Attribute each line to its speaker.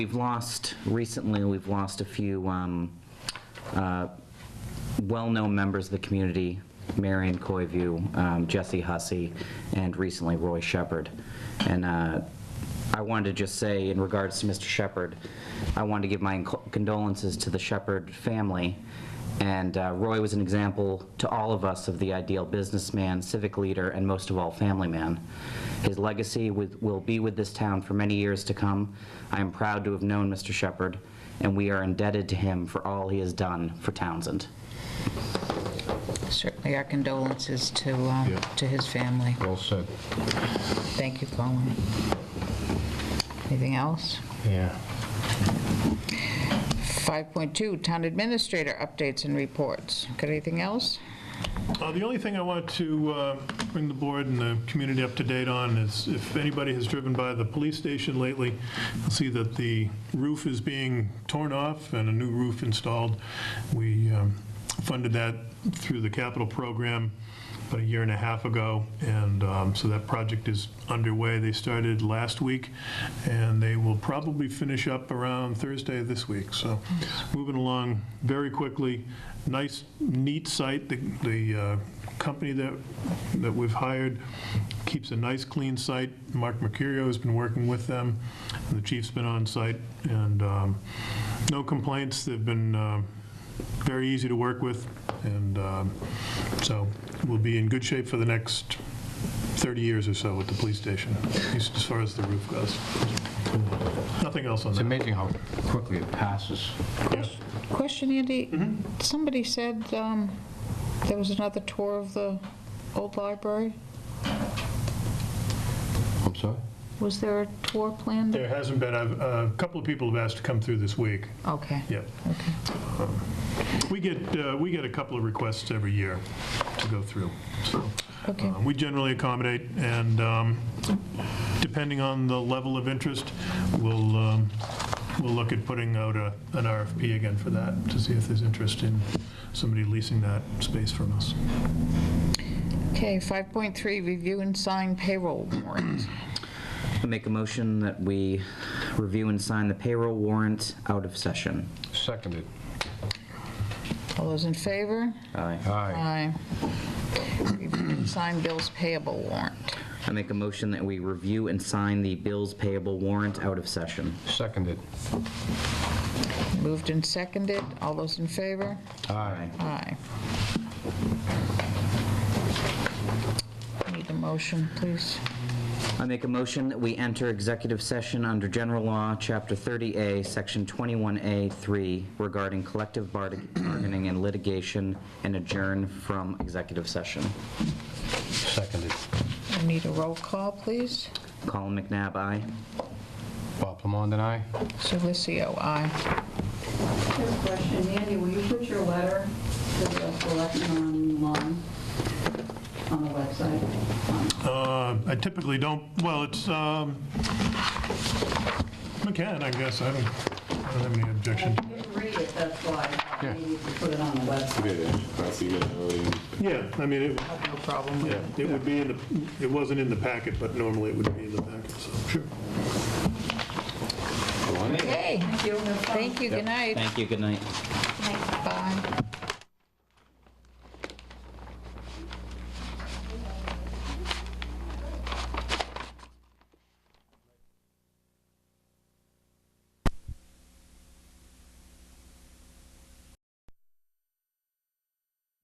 Speaker 1: We've lost, recently, we've lost a few um, uh, well-known members of the community, Marion Coyview, um, Jesse Hussey, and recently Roy Shepherd. And uh, I wanted to just say, in regards to Mr. Shepherd, I wanted to give my condolences to the Shepherd family. And uh, Roy was an example to all of us of the ideal businessman, civic leader, and most of all, family man. His legacy with- will be with this town for many years to come. I am proud to have known Mr. Shepherd, and we are indebted to him for all he has done for Townsend.
Speaker 2: Certainly our condolences to, uh,
Speaker 3: Yeah.
Speaker 2: to his family.
Speaker 3: Well said.
Speaker 2: Thank you, Colin. Anything else?
Speaker 3: Yeah.
Speaker 2: 5.2, Town Administrator Updates and Reports. Got anything else?
Speaker 4: Uh, The only thing I want to uh, bring the board and the community up to date on is if anybody has driven by the police station lately, you'll see that the roof is being torn off and a new roof installed. We um, funded that through the capital program about a year and a half ago, and um, so that project is underway. They started last week, and they will probably finish up around Thursday of this week, so moving along very quickly. Nice, neat site. The- The uh, company that, that we've hired keeps a nice, clean site. Mark Mercurio has been working with them, and the chief's been on site, and um, no complaints. They've been um, very easy to work with, and um, so we'll be in good shape for the next 30 years or so at the police station, at least as far as the roof goes. Nothing else on
Speaker 3: It's
Speaker 4: that.
Speaker 3: amazing how quickly it passes.
Speaker 2: Question, Andy? Somebody said um, there was another tour of the old library.
Speaker 3: I'm sorry?
Speaker 2: Was there a tour planned?
Speaker 4: There hasn't been, I've- uh, a couple of people have asked to come through this week.
Speaker 2: Okay,
Speaker 4: Yeah.
Speaker 2: okay.
Speaker 4: We get, uh, we get a couple of requests every year to go through, so.
Speaker 2: Okay.
Speaker 4: uh, We generally accommodate, and um, depending on the level of interest, we'll, um, we'll look at putting out a- an RFP again for that, to see if there's interest in somebody leasing that space from us.
Speaker 2: Okay, 5.3, Review and Sign Payroll Warrant.
Speaker 1: I Make a motion that we review and sign the payroll warrant out of session.
Speaker 3: Seconded.
Speaker 2: All those in favor?
Speaker 1: Aye.
Speaker 3: Aye.
Speaker 2: Aye. Review and Sign Bills Payable Warrant.
Speaker 1: I make a motion that we review and sign the bills payable warrant out of session.
Speaker 3: Seconded.
Speaker 2: Moved and seconded. All those in favor?
Speaker 3: Aye.
Speaker 2: Aye. Need a motion, please.
Speaker 1: I make a motion that we enter executive session under General Law, Chapter 30A, Section 21A3, regarding collective bar- bargaining and litigation, and adjourn from executive session.
Speaker 3: Seconded.
Speaker 2: I Need a roll call, please.
Speaker 1: Colin McNabb, aye.
Speaker 3: Bob Plamond and I.
Speaker 2: Silicio, aye.
Speaker 5: Quick question, Andy, will you put your letter to the selection online, on the website?
Speaker 4: Uh, I typically don't, well, it's, um, I can, I guess, I don't, I don't have any objection.
Speaker 5: I didn't read it, that's why, I needed to put it on the website.
Speaker 6: Yeah, yeah, that's a good idea.
Speaker 4: Yeah, I mean, it,
Speaker 2: I have No problem with
Speaker 4: yeah,
Speaker 2: it.
Speaker 4: it would be in the, it wasn't in the packet, but normally it would be in the packet, so, sure.
Speaker 2: Okay,
Speaker 5: Thank you. Have fun.
Speaker 2: thank you, good night.
Speaker 1: Thank you, good night.
Speaker 2: Bye.